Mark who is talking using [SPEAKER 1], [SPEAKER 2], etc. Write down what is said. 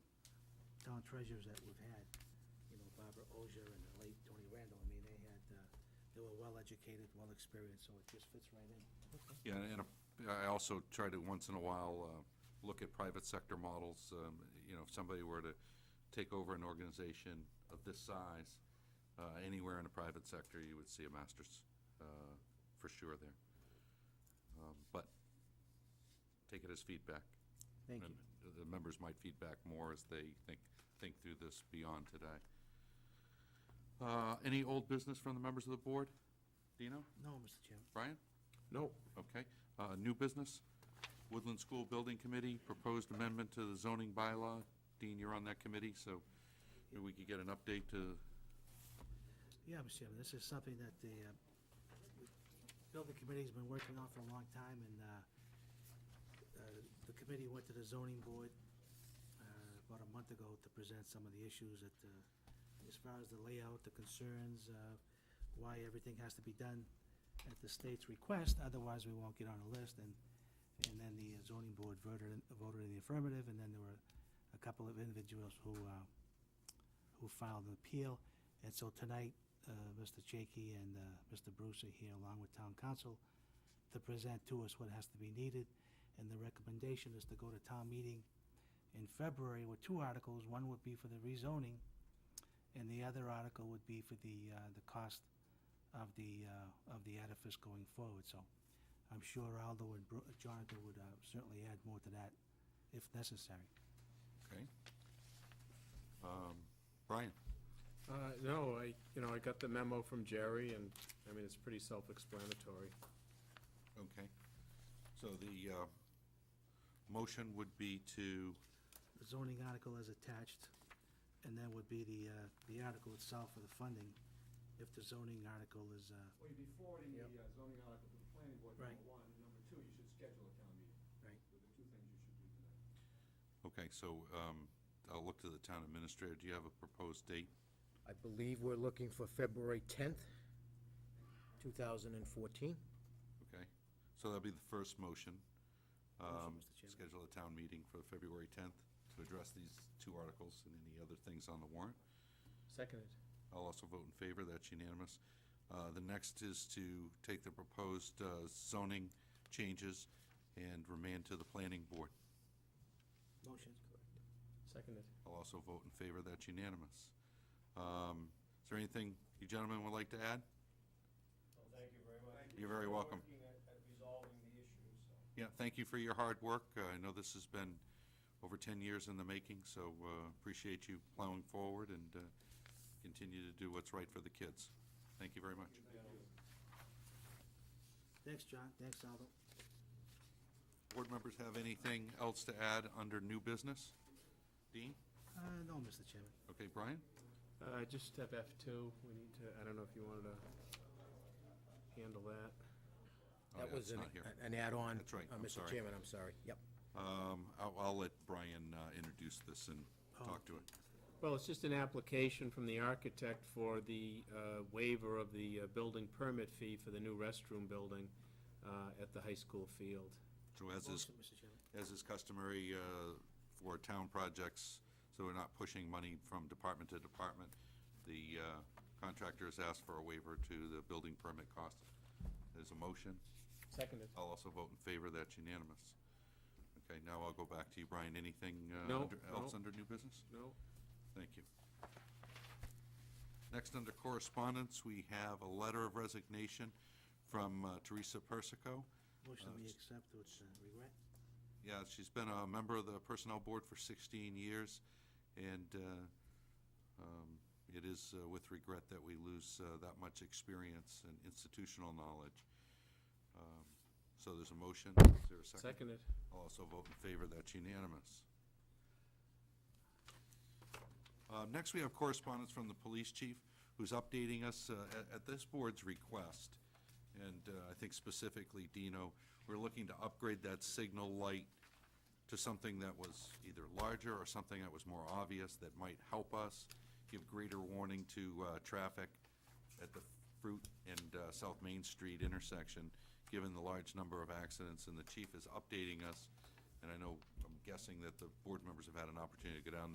[SPEAKER 1] town treasurers that we've had, you know, Barbara Ozier and the late Tony Randall, I mean, they had, uh, they were well-educated, well-experienced, so it just fits right in.
[SPEAKER 2] Yeah, and uh, I also try to, once in a while, uh, look at private sector models. Um, You know, if somebody were to take over an organization of this size, uh, anywhere in the private sector, you would see a master's uh, for sure there. Um, But take it as feedback.
[SPEAKER 1] Thank you.
[SPEAKER 2] And The members might feedback more as they think, think through this beyond today. Uh, Any old business from the members of the board? Dino?
[SPEAKER 1] No, Mr. Chairman.
[SPEAKER 2] Brian?
[SPEAKER 3] No.
[SPEAKER 2] Okay. Uh, New business, Woodland School Building Committee, proposed amendment to the zoning bylaw. Dean, you're on that committee, so maybe we could get an update to,
[SPEAKER 1] Yeah, Mr. Chairman, this is something that the uh, building committee's been working on for a long time, and uh, uh, the committee went to the zoning board uh, about a month ago to present some of the issues that, uh, as far as the layout, the concerns, uh, why everything has to be done at the state's request, otherwise we won't get on the list, and, and then the zoning board voted, in- voted in the affirmative, and then there were a couple of individuals who, uh, who filed an appeal. And so tonight, uh, Mr. Jakey and uh, Mr. Bruce are here along with town council to present to us what has to be needed. And the recommendation is to go to town meeting in February with two articles. One would be for the rezoning, and the other article would be for the, uh, the cost of the, uh, of the edifice going forward. So I'm sure Aldo and Bru- Jonathan would uh, certainly add more to that if necessary.
[SPEAKER 2] okay? Um, Brian?
[SPEAKER 3] Uh, No, I, you know, I got the memo from Jerry, and, I mean, it's pretty self-explanatory.
[SPEAKER 2] Okay. So the uh, motion would be to,
[SPEAKER 1] the zoning article as attached, and then would be the, uh, the article itself for the funding, if the zoning article is, uh,
[SPEAKER 4] Well, you'd be forwarding the uh, zoning article to the planning board, number
[SPEAKER 1] Right.
[SPEAKER 4] one, and number two, you should schedule a town meeting.
[SPEAKER 1] Right.
[SPEAKER 4] Those are two things you should do tonight.
[SPEAKER 2] okay, so um, I'll look to the town administrator. Do you have a proposed date?
[SPEAKER 5] I believe we're looking for February 10th, 2014.
[SPEAKER 2] Okay? So that'll be the first
[SPEAKER 1] Motion,
[SPEAKER 2] motion. Um,
[SPEAKER 1] Mr. Chairman.
[SPEAKER 2] Schedule a town meeting for February 10th to address these two articles and any other things on the warrant.
[SPEAKER 3] Seconded.
[SPEAKER 2] I'll also vote in favor, that's unanimous. Uh, The next is to take the proposed uh, zoning changes and remand to the planning board.
[SPEAKER 1] motion. Correct.
[SPEAKER 3] Seconded.
[SPEAKER 2] I'll also vote in favor, that's unanimous. Um, Is there anything you gentlemen would like to add?
[SPEAKER 6] Well, thank you very much.
[SPEAKER 2] You're very welcome.
[SPEAKER 6] Working at at resolving the issue, so.
[SPEAKER 2] Yeah, thank you for your hard work. Uh, I know this has been over 10 years in the making, so uh, appreciate you plowing forward and uh, continue to do what's right for the kids. Thank you very much.
[SPEAKER 1] Thanks, John, thanks, Aldo.
[SPEAKER 2] Board members have anything else to add under new business? Dean?
[SPEAKER 1] Uh, no, Mr. Chairman.
[SPEAKER 2] Okay, Brian?
[SPEAKER 3] Uh, Just have F2, we need to, I don't know if you wanted to handle that.
[SPEAKER 2] Oh,
[SPEAKER 5] That
[SPEAKER 2] yeah,
[SPEAKER 5] was
[SPEAKER 2] it's
[SPEAKER 5] an e-
[SPEAKER 2] not here.
[SPEAKER 5] an add-on.
[SPEAKER 2] That's right,
[SPEAKER 5] uh,
[SPEAKER 2] I'm sorry.
[SPEAKER 5] Mr. Chairman, I'm sorry. Yep.
[SPEAKER 2] Um, I'll, I'll let Brian uh, introduce this and
[SPEAKER 5] Oh.
[SPEAKER 2] talk to it.
[SPEAKER 3] Well, it's just an application from the architect for the uh, waiver of the uh, building permit fee for the new restroom building uh, at the high school field.
[SPEAKER 2] So as is,
[SPEAKER 1] Motion, Mr. Chairman.
[SPEAKER 2] as is customary uh, for town projects, so we're not pushing money from department to department, the uh, contractor has asked for a waiver to the building permit cost. There's a motion.
[SPEAKER 3] Seconded.
[SPEAKER 2] I'll also vote in favor. That's unanimous. Okay, now I'll go back to you, Brian. Anything uh,
[SPEAKER 3] No,
[SPEAKER 2] under- else
[SPEAKER 3] no.
[SPEAKER 2] under new business?
[SPEAKER 3] No?
[SPEAKER 2] Thank you. Next, under correspondence, we have a letter of resignation from uh, Teresa Persico.
[SPEAKER 1] Motion we accept with uh, regret.
[SPEAKER 2] Yeah, she's been a member of the Personnel Board for 16 years, and uh, um, it is uh, with regret that we lose uh, that much experience and institutional knowledge. Um, So there's a motion. Is there a second?
[SPEAKER 3] Seconded.
[SPEAKER 2] I'll also vote in favor, that's unanimous. Uh, Next, we have correspondence from the police chief, who's updating us uh, at- at this board's request, and uh, I think specifically Dino, we're looking to upgrade that signal light to something that was either larger or something that was more obvious that might help us give greater warning to uh, traffic at the Fruit and uh, South Main Street intersection, given the large number of accidents, and the chief is updating us, and I know, I'm guessing that the board members have had an opportunity to go down there.